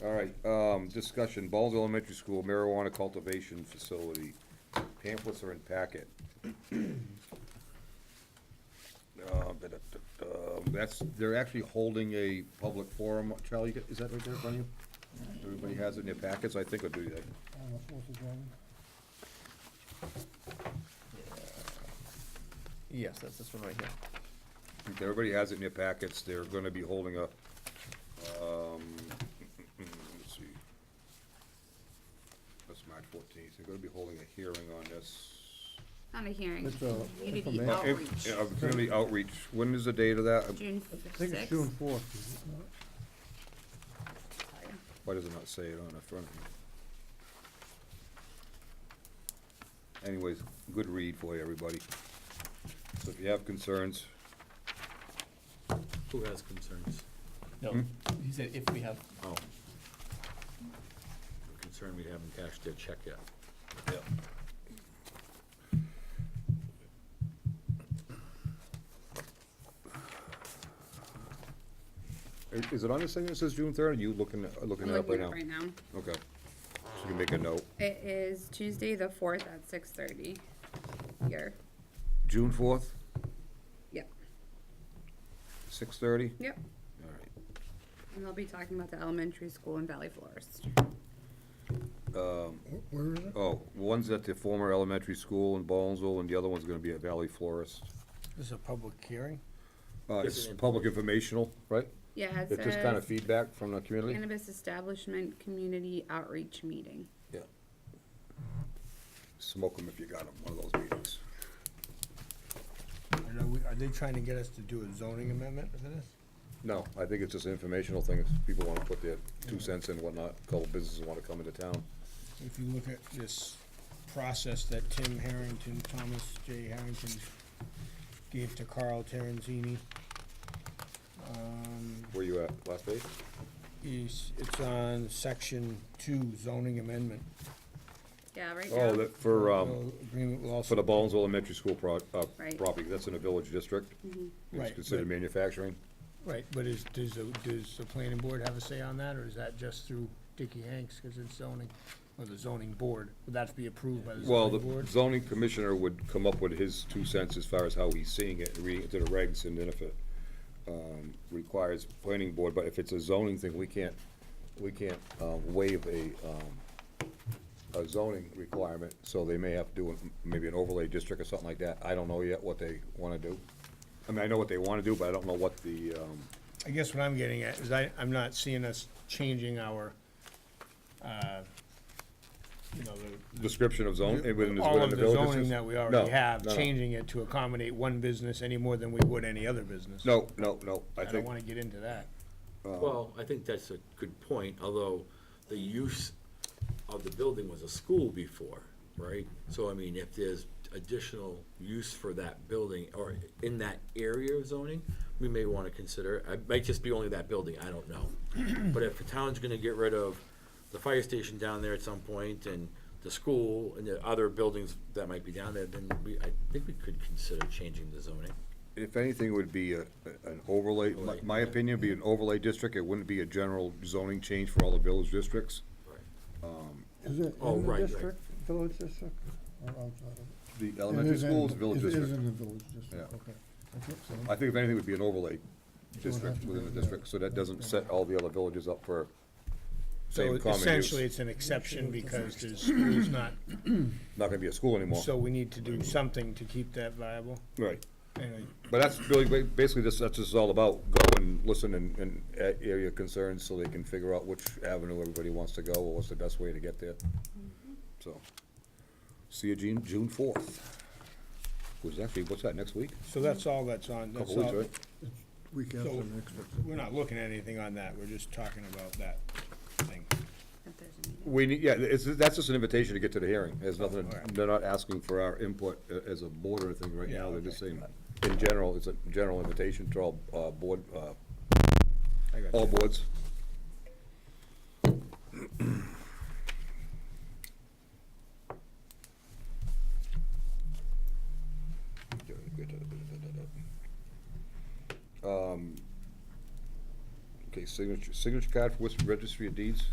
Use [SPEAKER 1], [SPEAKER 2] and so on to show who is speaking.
[SPEAKER 1] All right, um, discussion, Balls Elementary School marijuana cultivation facility. Pamphlets are in packet. Uh, but, uh, That's, they're actually holding a public forum. Charlie, you got- is that right there in front of you? Everybody has it in their packets, I think, or do they?
[SPEAKER 2] On the Fourth of July.
[SPEAKER 3] Yes, that's this one right here.
[SPEAKER 1] Everybody has it in their packets, they're gonna be holding a, um, let's see. That's March fourteenth, they're gonna be holding a hearing on this.
[SPEAKER 4] Not a hearing,
[SPEAKER 2] It's, uh,
[SPEAKER 4] community
[SPEAKER 2] information.
[SPEAKER 4] outreach,
[SPEAKER 1] Yeah, Community outreach, when is the date of that?
[SPEAKER 4] June
[SPEAKER 2] I think it's June
[SPEAKER 4] sixth.
[SPEAKER 2] fourth, is it not?
[SPEAKER 1] Why does it not say it on the front of me? Anyways, good read for you, everybody. So if you have concerns,
[SPEAKER 5] Who has concerns?
[SPEAKER 3] No, he said if we have,
[SPEAKER 5] Oh. I'm Concerned we haven't cashed their check yet.
[SPEAKER 1] yeah. Is- Is it on this thing that says June third, are you looking, uh, looking
[SPEAKER 4] I'm
[SPEAKER 1] it up right
[SPEAKER 4] looking
[SPEAKER 1] now?
[SPEAKER 4] up right now.
[SPEAKER 1] Okay, so you can make a note.
[SPEAKER 4] It is Tuesday, the fourth at six thirty here.
[SPEAKER 1] June fourth,
[SPEAKER 4] Yep,
[SPEAKER 1] six thirty?
[SPEAKER 4] yep.
[SPEAKER 1] All right.
[SPEAKER 4] And they'll be talking about the elementary school in Valley Forest.
[SPEAKER 2] Wh- Where is it?
[SPEAKER 1] Oh, one's at the former elementary school in Ballinsville, and the other one's gonna be at Valley Florist.
[SPEAKER 2] This is a public hearing?
[SPEAKER 1] Uh, it's public informational, right?
[SPEAKER 4] Yeah, it
[SPEAKER 1] It's just kind of
[SPEAKER 4] says
[SPEAKER 1] feedback from the community?
[SPEAKER 4] cannabis establishment community outreach meeting.
[SPEAKER 1] Yeah. Smoke them if you got them, one of those meetings.
[SPEAKER 6] And Are we- are they trying to get us to do a zoning amendment for this?
[SPEAKER 1] No, I think it's just an informational thing, if people wanna put their two cents in whatnot, couple businesses wanna come into town.
[SPEAKER 6] If you look at this process that Tim Harrington, Thomas J. Harrington gave to Carl Terenzini, um,
[SPEAKER 1] Where you at, last page?
[SPEAKER 6] is, it's on section two zoning amendment.
[SPEAKER 4] Yeah, right
[SPEAKER 1] Oh,
[SPEAKER 4] now,
[SPEAKER 1] that, for, um,
[SPEAKER 6] No Agreement will also.
[SPEAKER 1] for the Ballinsville Elementary School pro, uh,
[SPEAKER 4] Right. Mm-hmm.
[SPEAKER 1] property, that's in a village district. It's
[SPEAKER 6] Right,
[SPEAKER 1] considered
[SPEAKER 6] but-
[SPEAKER 1] manufacturing.
[SPEAKER 6] Right, but is, does, the- does the planning board have a say on that, or is that just through Dicky Hanks, because it's zoning, or the zoning board? Would that be approved by the
[SPEAKER 1] Well,
[SPEAKER 6] zoning
[SPEAKER 1] the
[SPEAKER 6] board?
[SPEAKER 1] zoning commissioner would come up with his two cents as far as how he's seeing it, reading it to the regs, and then if it, um, requires planning board, but if it's a zoning thing, we can't, we can't, um, waive a, um, a zoning requirement, so they may have to do an- maybe an overlay district or something like that. I don't know yet what they wanna do. I mean, I know what they wanna do, but I don't know what the, um,
[SPEAKER 6] I guess what I'm getting at is I, I'm not seeing us changing our, uh, you know, the.
[SPEAKER 1] description of zone, eh, within the,
[SPEAKER 6] All
[SPEAKER 1] within
[SPEAKER 6] of
[SPEAKER 1] the
[SPEAKER 6] the
[SPEAKER 1] village. district.
[SPEAKER 6] zoning that we
[SPEAKER 1] No,
[SPEAKER 6] already have,
[SPEAKER 1] no, no.
[SPEAKER 6] changing it to accommodate one business any more than we would any other business.
[SPEAKER 1] No, no, no, I
[SPEAKER 6] I don't
[SPEAKER 1] think,
[SPEAKER 6] wanna get into that.
[SPEAKER 5] Well, I think that's a good point, although the use of the building was a school before, right? So I mean, if there's additional use for that building or in that area of zoning, we may want to consider, it. it might just be only that building, I don't know. But if the town's gonna get rid of the fire station down there at some point and the school and the other buildings that might be down there, then we, I think we could consider changing the zoning.
[SPEAKER 1] If anything, it would be a, an overlay, my- my opinion, be an overlay district, it wouldn't be a general zoning change for all the village districts.
[SPEAKER 2] Is it
[SPEAKER 5] Oh,
[SPEAKER 2] in the
[SPEAKER 5] right, right.
[SPEAKER 2] district, village district, or outside of it?
[SPEAKER 1] The
[SPEAKER 2] Oh, It
[SPEAKER 1] elementary
[SPEAKER 2] is in-
[SPEAKER 1] schools, village
[SPEAKER 2] it is
[SPEAKER 1] district.
[SPEAKER 2] in the village district,
[SPEAKER 1] Yeah.
[SPEAKER 2] okay. I think so.
[SPEAKER 1] I think if anything, it would be an overlay district
[SPEAKER 2] have to
[SPEAKER 1] within the
[SPEAKER 2] be, yeah.
[SPEAKER 1] district, so that doesn't set all the other villages up for
[SPEAKER 6] So
[SPEAKER 1] same common
[SPEAKER 6] essentially,
[SPEAKER 1] use.
[SPEAKER 6] it's an exception because there's schools not,
[SPEAKER 1] Not gonna be a school anymore.
[SPEAKER 6] so we need to do something to keep that viable.
[SPEAKER 1] Right.
[SPEAKER 6] And
[SPEAKER 1] But that's really, ba- basically, this, that's just all about, go and listen and, and a- area concerns so they can figure out which avenue everybody wants to go, or what's the best way to get there. So, see you June, June fourth. Was actually, what's that, next week?
[SPEAKER 6] so that's all that's on, that's
[SPEAKER 1] Couple weeks,
[SPEAKER 6] all,
[SPEAKER 1] right?
[SPEAKER 2] Week after
[SPEAKER 6] So-
[SPEAKER 2] next.
[SPEAKER 6] we're not looking at anything on that, we're just talking about that thing.
[SPEAKER 4] if there's a meeting.
[SPEAKER 1] We, need- yeah, it's, that's just an invitation to get to the hearing, there's nothing,
[SPEAKER 6] Alright.
[SPEAKER 1] they're not asking for our input a- as a board or anything right
[SPEAKER 6] Yeah,
[SPEAKER 1] now, they're just
[SPEAKER 6] okay.
[SPEAKER 1] saying, in general, it's a general invitation to all, uh, board, uh,
[SPEAKER 6] I got
[SPEAKER 1] all
[SPEAKER 6] you.
[SPEAKER 1] boards. Um, Okay, signature, signature card for Worcester Registry of Deeds?